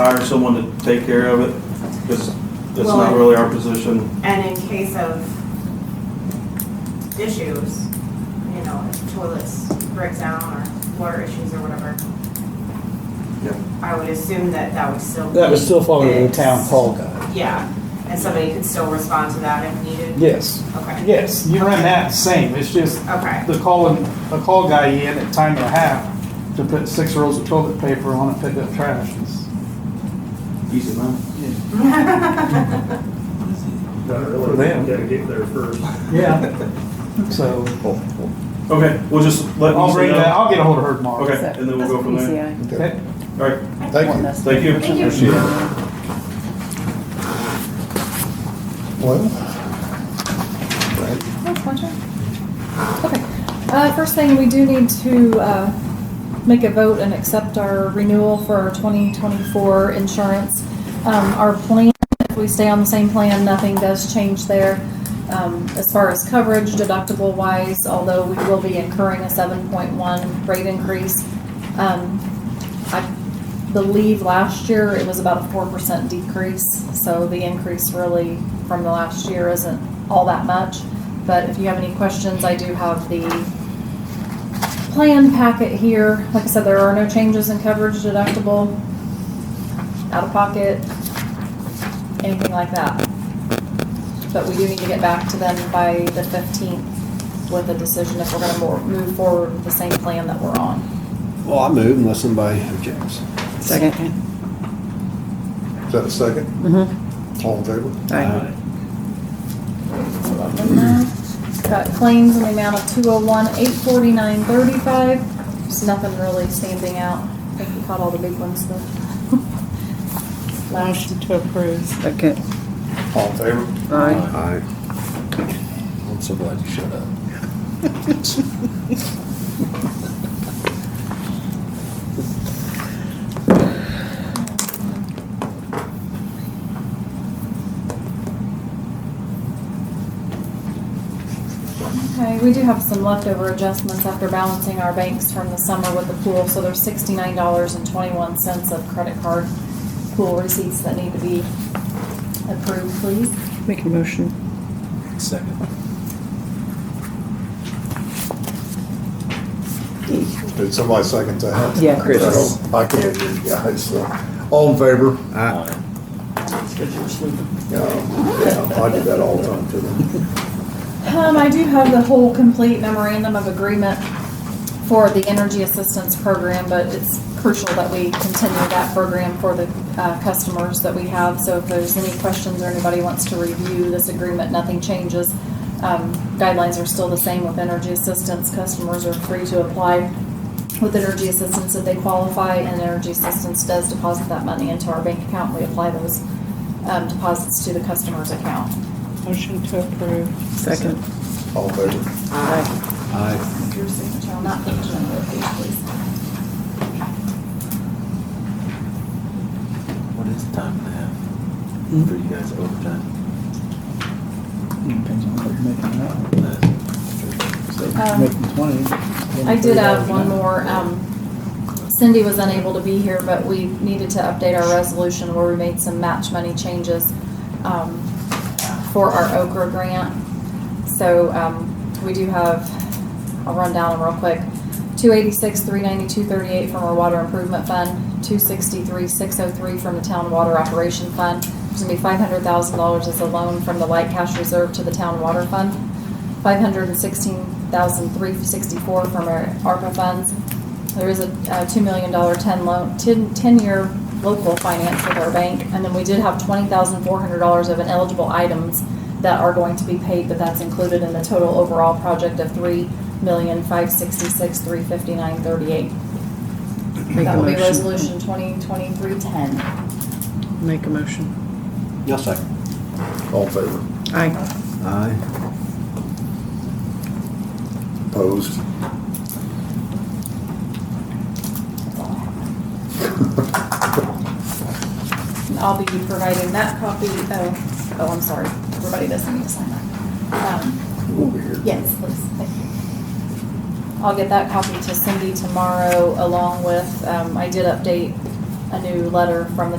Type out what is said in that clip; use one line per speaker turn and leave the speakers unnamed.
hire someone to take care of it, because that's
Well,
not
I-
really our position.
And in case of issues, you know, if toilets break down or water issues or whatever.
Yep.
I would assume that that would still.
That was
be
still following the town
fixed.
hall guide.
Yeah, and somebody could still respond to that if needed?
Yes,
Okay,
yes, you run that same, it's just
okay,
the calling, the call guy in at time and a half to put six rolls of toilet paper on and pick up trash. is-
Easy enough.
Not really.
For them.
Gotta get there first.
Yeah. So,
Oh,
Okay, we'll just let
I'll
Lisa
bring that,
know.
I'll get a hold of her tomorrow.
Okay, and then we'll go from there.
Okay.
All right,
Thank you.
thank you.
E Thank you.
Appreciate it. Well, right,
That's my turn. Okay. Uh, first thing, we do need to, uh, make a vote and accept our renewal for our twenty twenty-four insurance. Um, our plan, if we stay on the same plan, nothing does change there. Um, as far as coverage deductible wise, although we will be incurring a seven point one rate increase. Um, I believe last year it was about a four percent decrease, so the increase really from the last year isn't all that much. But if you have any questions, I do have the plan packet here. Like I said, there are no changes in coverage deductible, out of pocket, anything like that. But we do need to get back to them by the fifteenth with a decision if we're gonna mo- move forward with the same plan that we're on.
well, I move unless somebody objects.
Second.
Is that a second? Mm-hmm. All in favor?
Aye.
Mm-hmm. Got claims in the amount of two oh one, eight forty-nine, thirty-five. There's nothing really standing out. I think we caught all the big ones though. Last,
to approve. Second.
All in favor?
Aye.
Aye. I'm so glad you shut up.
okay, we do have some leftover adjustments after balancing our banks from the summer with the pool, so there's sixty-nine dollars and twenty-one cents of credit card pool receipts that need to be approved, please.
Make a motion.
Did somebody second that?
Yeah, Chris.
I can't hear you guys, so, all in favor? Aye. Yeah, yeah, I do that all the time to them.
Um, I do have the whole complete memorandum of agreement for the energy assistance program, but it's crucial that we continue that program for the, uh, customers that we have. So if there's any questions or anybody wants to review this agreement, nothing changes. Um, guidelines are still the same with energy assistance. Customers are free to apply with energy assistance if they qualify, and energy assistance does deposit that money into our bank account. We apply those, um, deposits to the customer's account.
Motion to approve. Second.
All in favor?
Aye.
Aye.
Your signature on that page, number of page, please.
What is time and a half
Hmm?
for you guys overtime?
Depends on what you're making now.
Um,
Making twenty.
I did add one more. Um, Cindy was unable to be here, but we needed to update our resolution where we made some match money changes um, for our Okra grant. So um, we do have, I'll run down them real quick. Two eighty-six, three ninety-two, thirty-eight from our water improvement fund, two sixty-three, six oh three from the town water operation fund. There's gonna be five hundred thousand dollars as a loan from the light cash reserve to the town water fund. Five hundred and sixteen thousand, three sixty-four from our ARPA funds. There is a uh, two million dollar ten loan, ten, ten-year local finance with our bank. And then we did have twenty thousand, four hundred dollars of ineligible items that are going to be paid, but that's included in the total overall project of three million, five sixty-six, three fifty-nine, thirty-eight.
Make a
That will be
motion.
resolution twenty twenty-three, ten.
Make a motion.
Yes, second. All in favor?
Aye.
Aye. Opposed?
I'll be providing that copy, oh, oh, I'm sorry, everybody doesn't need to sign that. Um,
Over here.
Yes, please, thank you. I'll get that copy to Cindy tomorrow along with, um, I did update a new letter from the